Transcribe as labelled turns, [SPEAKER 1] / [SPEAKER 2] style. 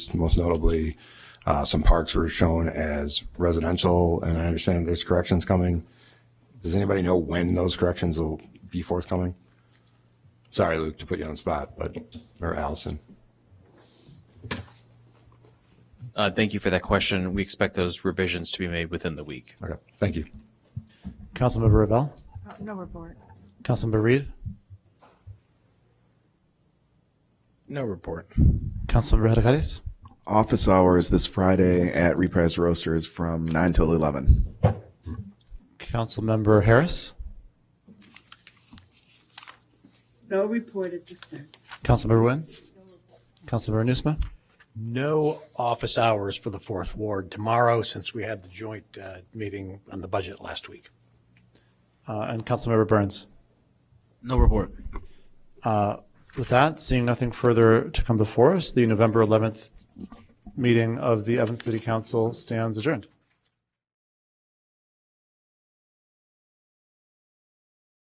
[SPEAKER 1] Most notably, uh, some parks were shown as residential, and I understand there's corrections coming. Does anybody know when those corrections will be forthcoming? Sorry, Luke, to put you on the spot, but, or Allison.
[SPEAKER 2] Uh, Thank you for that question. We expect those revisions to be made within the week.
[SPEAKER 1] Okay, thank you.
[SPEAKER 3] Councilmember Ravel,
[SPEAKER 4] Uh, No report.
[SPEAKER 3] Councilmember Reed,
[SPEAKER 5] No report.
[SPEAKER 3] Councilmember Hadakaris,
[SPEAKER 5] Office hours this Friday at Reprise Roasters from 9 till 11.
[SPEAKER 3] Councilmember Harris,
[SPEAKER 6] No report at this time.
[SPEAKER 3] Councilmember Nguyen, Councilmember Nusma,
[SPEAKER 7] No office hours for the fourth ward tomorrow since we had the joint uh, meeting on the budget last week.
[SPEAKER 3] uh, and Councilmember Burns. Uh,
[SPEAKER 8] No report.
[SPEAKER 3] With that, seeing nothing further to come before us, the November 11th meeting of the Evanston City Council stands adjourned.